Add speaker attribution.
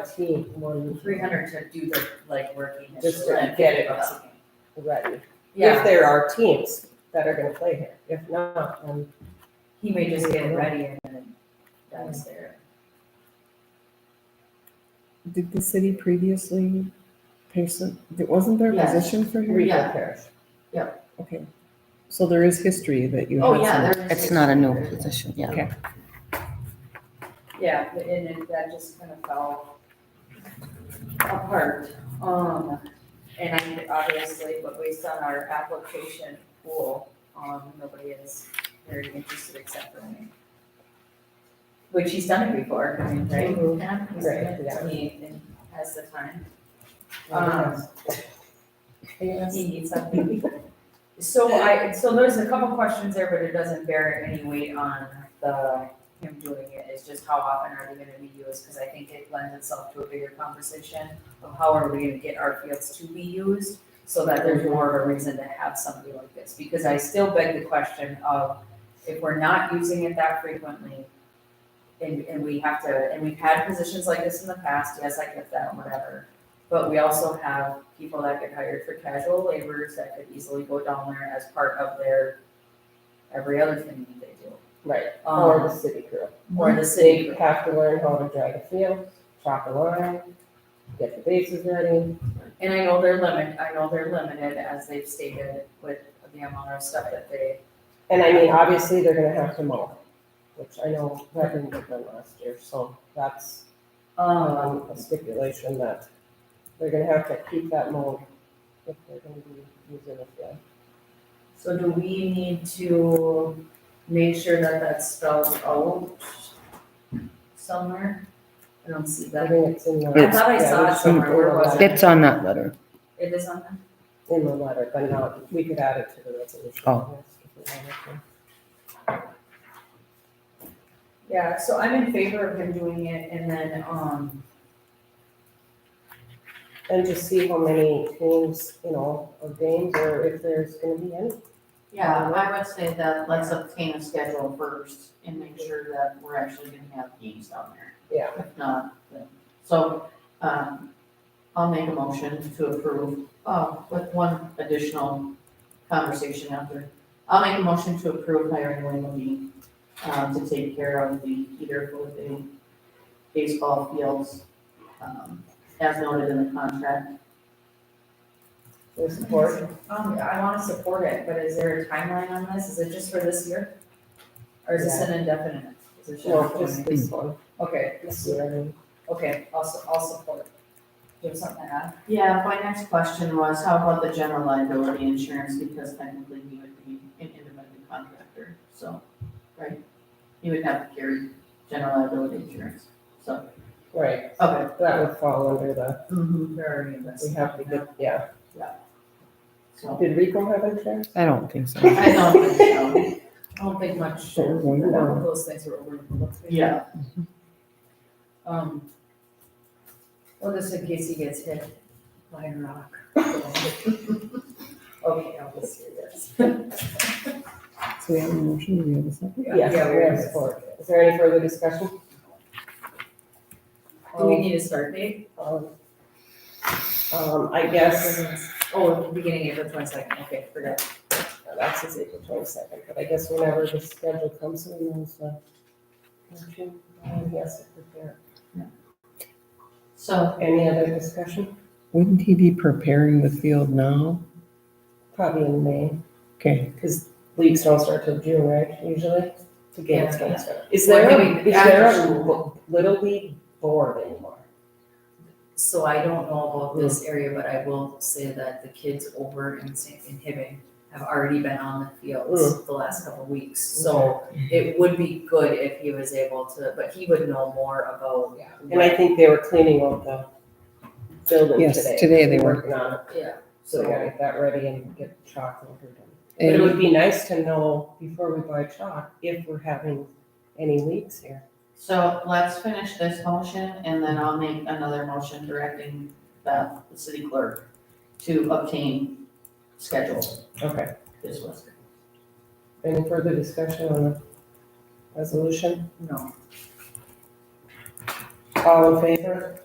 Speaker 1: IT when
Speaker 2: Three hundred to do the like work initially.
Speaker 1: Just to get it up. ready. If
Speaker 2: Yeah,
Speaker 1: there are teams that are gonna play here, if not, then
Speaker 2: he may just get it ready and then that was there.
Speaker 3: Did the city previously pay some, there- wasn't there a
Speaker 2: Yes.
Speaker 3: position for her?
Speaker 1: Reedville
Speaker 2: Yeah.
Speaker 1: Parish.
Speaker 3: Okay, so there is history that you
Speaker 2: Oh,
Speaker 3: had
Speaker 2: yeah,
Speaker 3: some.
Speaker 2: there is.
Speaker 4: It's not a new position, yeah.
Speaker 2: Yeah, but- and it, that just kind of fell apart. Um, and I mean, obviously, but based on our application pool, um, nobody is very interested except for me. Which he's done it before, I mean, right?
Speaker 1: Mhm.
Speaker 2: He's done it,
Speaker 1: Right, yeah.
Speaker 2: He and has the time.
Speaker 1: Um,
Speaker 2: He needs something. So I, so there's a couple questions there, but it doesn't bear any weight on the, him doing it, it's just how often are they gonna be used? Cause I think it lends itself to a bigger conversation of how are we gonna get our fields to be used? So that there's more of a reason to have somebody like this, because I still beg the question of, if we're not using it that frequently, and, and we have to, and we've had positions like this in the past, yes, I get that, whatever. But we also have people that get hired for casual laborers that could easily go down there as part of their, every other thing that they do.
Speaker 1: Right, or the
Speaker 2: Um,
Speaker 1: city crew.
Speaker 2: or the
Speaker 1: They
Speaker 2: city,
Speaker 1: have to learn how to drag a field, chop a line, get the bases ready.
Speaker 2: and I know they're limited, I know they're limited as they've stated with the amount of stuff that they,
Speaker 1: And I mean, obviously, they're gonna have to mow, which I know that didn't get done last year, so that's
Speaker 2: um,
Speaker 1: um, a stipulation that they're gonna have to keep that mowed if they're gonna be using the field.
Speaker 2: so do we need to make sure that that's spelled out somewhere? I don't see
Speaker 1: I
Speaker 2: that.
Speaker 1: think it's in the.
Speaker 2: I thought I saw
Speaker 1: yeah,
Speaker 2: it
Speaker 1: we should
Speaker 2: somewhere, where was it?
Speaker 4: It's on that letter.
Speaker 2: It is on there?
Speaker 1: In the letter, but not, we could add it to the resolution.
Speaker 4: Oh.
Speaker 1: yes, if we wanted
Speaker 2: Yeah, so I'm in favor of him doing it and then, um,
Speaker 1: to. And just see how many teams, you know, of games, or if there's gonna be any.
Speaker 5: Yeah, I would say that let's obtain a schedule first and make sure that we're actually gonna have games down there.
Speaker 1: Yeah.
Speaker 5: If not, then- so, um, I'll make a motion to approve, uh, with one additional conversation after. I'll make a motion to approve hiring Wayne Levine, um, to take care of the heater for the baseball fields, um, as noted in the contract.
Speaker 1: There's support.
Speaker 2: Um, I wanna support it, but is there a timeline on this? Is it just for this year? Or is this an indefinite? Is it
Speaker 1: No,
Speaker 2: just,
Speaker 1: just this one,
Speaker 2: okay,
Speaker 1: this year, I mean.
Speaker 2: okay, I'll, su- I'll support. it. Do you have something to add?
Speaker 5: Yeah, my next question was, how about the general liability insurance, because technically he would be an independent contractor, so, right? He would have to carry general liability insurance, so,
Speaker 1: Right,
Speaker 5: okay.
Speaker 1: that would fall under the,
Speaker 5: Mm-hmm.
Speaker 2: Where are you in this?
Speaker 1: we have to get, yeah.
Speaker 5: So,
Speaker 1: Did Rico have insurance?
Speaker 4: I don't think so.
Speaker 5: I don't think so,
Speaker 2: I don't think much,
Speaker 4: Sure, why not?
Speaker 2: those things were overlooked.
Speaker 5: yeah,
Speaker 2: Um, well, just in case he gets hit by a rock. Okay, I'll just do this.
Speaker 3: So we have a motion, do we have a second?
Speaker 1: Yes, we have support. Is there any further discussion?
Speaker 2: Do we need a start date?
Speaker 1: Um, um, I guess
Speaker 2: Oh, beginning April twenty-second, okay, forgot.
Speaker 1: Now, That's his April twenty-second, but I guess whenever the schedule comes, he knows uh, the. And he has to prepare.
Speaker 5: so,
Speaker 1: Any other discussion?
Speaker 3: Wouldn't he be preparing the field now?
Speaker 1: Probably in May,
Speaker 3: Okay,
Speaker 1: because leagues don't start till June, right, usually? The games
Speaker 2: Yeah.
Speaker 1: don't start. Is
Speaker 2: Well,
Speaker 1: there,
Speaker 2: I mean,
Speaker 1: a- is there a
Speaker 2: after-
Speaker 1: l- Little League board anymore?
Speaker 2: So I don't know about this
Speaker 1: Mm.
Speaker 2: area, but I will say that the kids over in St. in Hibbing have already been on the fields
Speaker 1: Mm.
Speaker 2: the last couple of weeks. So it would be good if he was able to, but he would know more about,
Speaker 1: Yeah. And I think they were cleaning out the building
Speaker 3: Yes,
Speaker 1: today.
Speaker 3: today they were.
Speaker 1: Working on it,
Speaker 2: yeah.
Speaker 1: so they gotta get that ready and get chalk and everything. But it
Speaker 3: and
Speaker 1: would be nice to know before we buy chalk if we're having any leaks here.
Speaker 5: so let's finish this motion, and then I'll make another motion directing Beth, the city clerk, to obtain schedule
Speaker 1: Okay.
Speaker 5: this list.
Speaker 1: Any further discussion on the resolution?
Speaker 2: No.
Speaker 1: All in favor?